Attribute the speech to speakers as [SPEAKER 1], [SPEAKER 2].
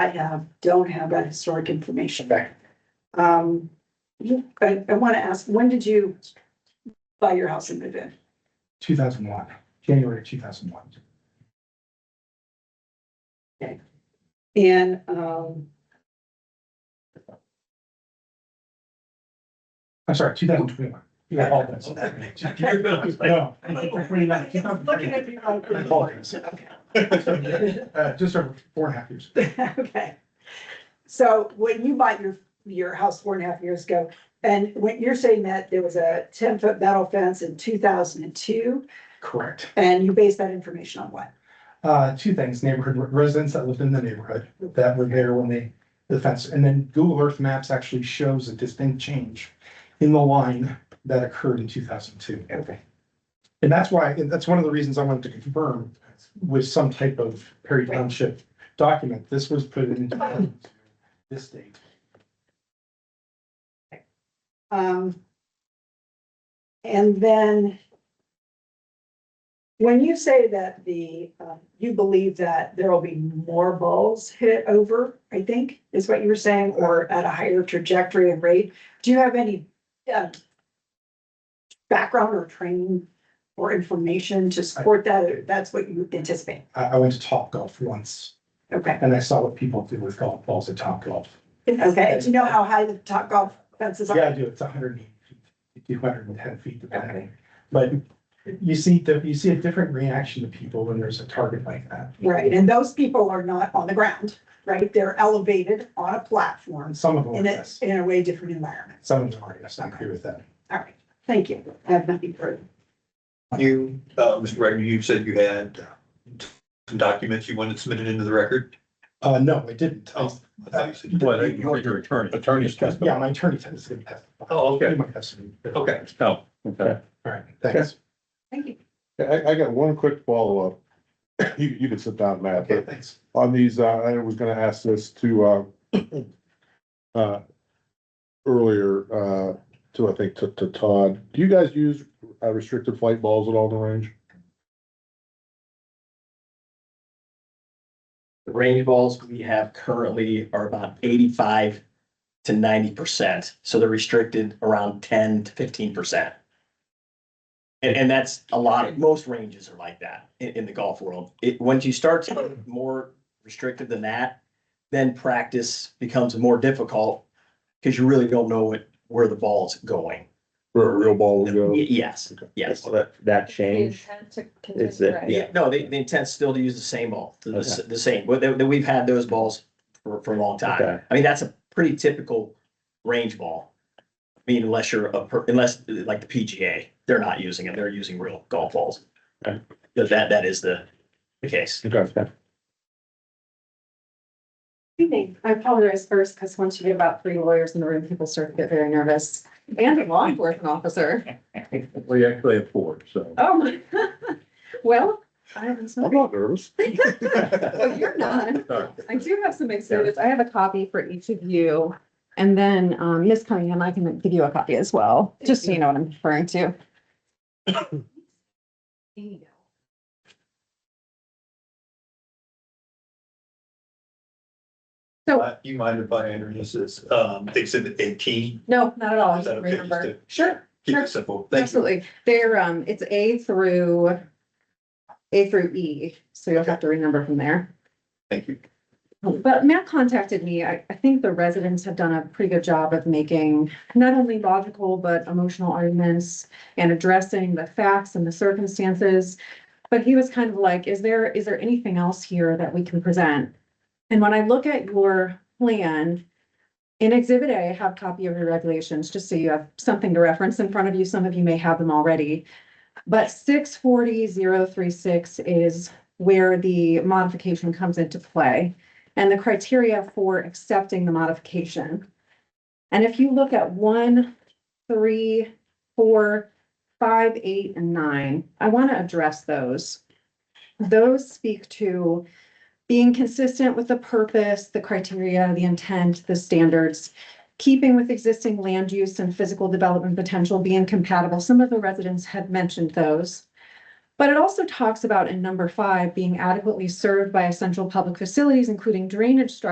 [SPEAKER 1] I have, don't have that historic information.
[SPEAKER 2] Okay.
[SPEAKER 1] Um, you- I, I want to ask, when did you buy your house and move in?
[SPEAKER 2] two thousand one, January two thousand one.
[SPEAKER 1] And, um,
[SPEAKER 2] I'm sorry, two thousand twenty-one.
[SPEAKER 3] Yeah.
[SPEAKER 2] No,
[SPEAKER 1] looking at you.
[SPEAKER 2] Uh, just over four and a half years.
[SPEAKER 1] Okay. So when you bought your, your house four and a half years ago, and when you're saying that there was a ten foot metal fence in two thousand and two,
[SPEAKER 2] Correct.
[SPEAKER 1] and you base that information on what?
[SPEAKER 2] Uh, two things, neighborhood residents that lived in the neighborhood that were there when they, the fence, and then Google Earth Maps actually shows a distinct change in the line that occurred in two thousand two.
[SPEAKER 1] Okay.
[SPEAKER 2] And that's why, and that's one of the reasons I wanted to confirm with some type of Perry Township document, this was put in this date.
[SPEAKER 1] Um. And then. When you say that the, uh, you believe that there will be more balls hit over, I think, is what you were saying, or at a higher trajectory and rate, do you have any? uh, Background or training or information to support that, that's what you anticipate,
[SPEAKER 2] I, I went to Top Golf once
[SPEAKER 1] okay,
[SPEAKER 2] and I saw what people do with golf balls at Top Golf.
[SPEAKER 1] okay, do you know how high the top golf fences are?
[SPEAKER 2] Yeah, I do. It's hundred and eighty feet, two hundred and ten feet depending. But you see, the- you see a different reaction to people when there's a target like that.
[SPEAKER 1] Right, and those people are not on the ground, right? They're elevated on a platform
[SPEAKER 2] And some of them, are
[SPEAKER 1] in a,
[SPEAKER 2] Oh, yes,
[SPEAKER 1] in a way different environment.
[SPEAKER 2] some of them are, yes, I agree with that.
[SPEAKER 1] All right, thank you. I have nothing further.
[SPEAKER 3] You, uh, Mr. Wagner, you said you had uh, some documents you wanted submitted into the record?
[SPEAKER 2] Uh, no, I didn't. I-
[SPEAKER 3] Oh, I thought you said you-
[SPEAKER 4] But I- you're your attorney. Attorney's
[SPEAKER 2] Yeah, my attorney tends to testify.
[SPEAKER 3] Oh, okay.
[SPEAKER 2] He might have some.
[SPEAKER 3] Okay.
[SPEAKER 4] Oh, okay.
[SPEAKER 2] All right, thanks.
[SPEAKER 1] Thank you.
[SPEAKER 5] I, I got one quick follow-up. You, you can sit down, Matt,
[SPEAKER 2] Okay,
[SPEAKER 5] but
[SPEAKER 2] thanks.
[SPEAKER 5] on these, uh, I was gonna ask this to, uh, uh, earlier, uh, to, I think, to, to Todd. Do you guys use uh, restricted flight balls at all in the range?
[SPEAKER 6] The range balls we have currently are about eighty-five to ninety percent, so they're restricted around ten to fifteen percent. And, and that's a lot, most ranges are like that in, in the golf world. It, once you start to get more restricted than that, then practice becomes more difficult because you really don't know what, where the ball's going.
[SPEAKER 5] Where a real ball would
[SPEAKER 6] Y-
[SPEAKER 5] go?
[SPEAKER 6] Yes, yes.
[SPEAKER 4] That, that
[SPEAKER 7] change.
[SPEAKER 4] is that-
[SPEAKER 6] Yeah, no, the, the intent's still to use the same ball, the, the the same, but that, that we've had those balls for, for a long time.
[SPEAKER 4] Okay.
[SPEAKER 6] I mean, that's a pretty typical range ball. I mean, unless you're a, per- unless uh, like the PGA, they're not using it, they're using real golf balls.
[SPEAKER 4] Okay.
[SPEAKER 6] But that, that is the, the case.
[SPEAKER 5] Okay.
[SPEAKER 7] I apologize first, because once you get about three lawyers in the room, people start to get very nervous, and a law enforcement officer.
[SPEAKER 4] We actually have four, so.
[SPEAKER 7] Oh, my well, I haven't
[SPEAKER 5] I'm
[SPEAKER 7] spoken.
[SPEAKER 5] not nervous.
[SPEAKER 7] Well, you're not.
[SPEAKER 4] Sorry.
[SPEAKER 7] I do have some exhibits. I have a copy for each of you. And then, um, Ms. Cunningham, I can give you a copy as well, just so you know what I'm referring to. There you go.
[SPEAKER 3] Uh, You mind if I enter this as, um, exhibit eighteen?
[SPEAKER 7] No, not at all. I
[SPEAKER 3] Is that
[SPEAKER 7] just
[SPEAKER 3] okay? Just
[SPEAKER 7] remember.
[SPEAKER 3] to
[SPEAKER 7] Sure.
[SPEAKER 3] Keep
[SPEAKER 7] Sure.
[SPEAKER 3] it simple. Thank you.
[SPEAKER 7] Absolutely. They're, um, it's A through, A through E, so you'll have to remember from there.
[SPEAKER 3] Thank you.
[SPEAKER 7] But Matt contacted me. I, I think the residents have done a pretty good job of making not only logical, but emotional arguments and addressing the facts and the circumstances. But he was kind of like, is there, is there anything else here that we can present? And when I look at your plan, in Exhibit A, I have copy of your regulations, just so you have something to reference in front of you. Some of you may have them already. But six forty zero three six is where the modification comes into play and the criteria for accepting the modification. And if you look at one, three, four, five, eight, and nine, I want to address those. Those speak to being consistent with the purpose, the criteria, the intent, the standards, keeping with existing land use and physical development potential being compatible. Some of the residents had mentioned those. But it also talks about in number five, being adequately served by essential public facilities, including drainage structures.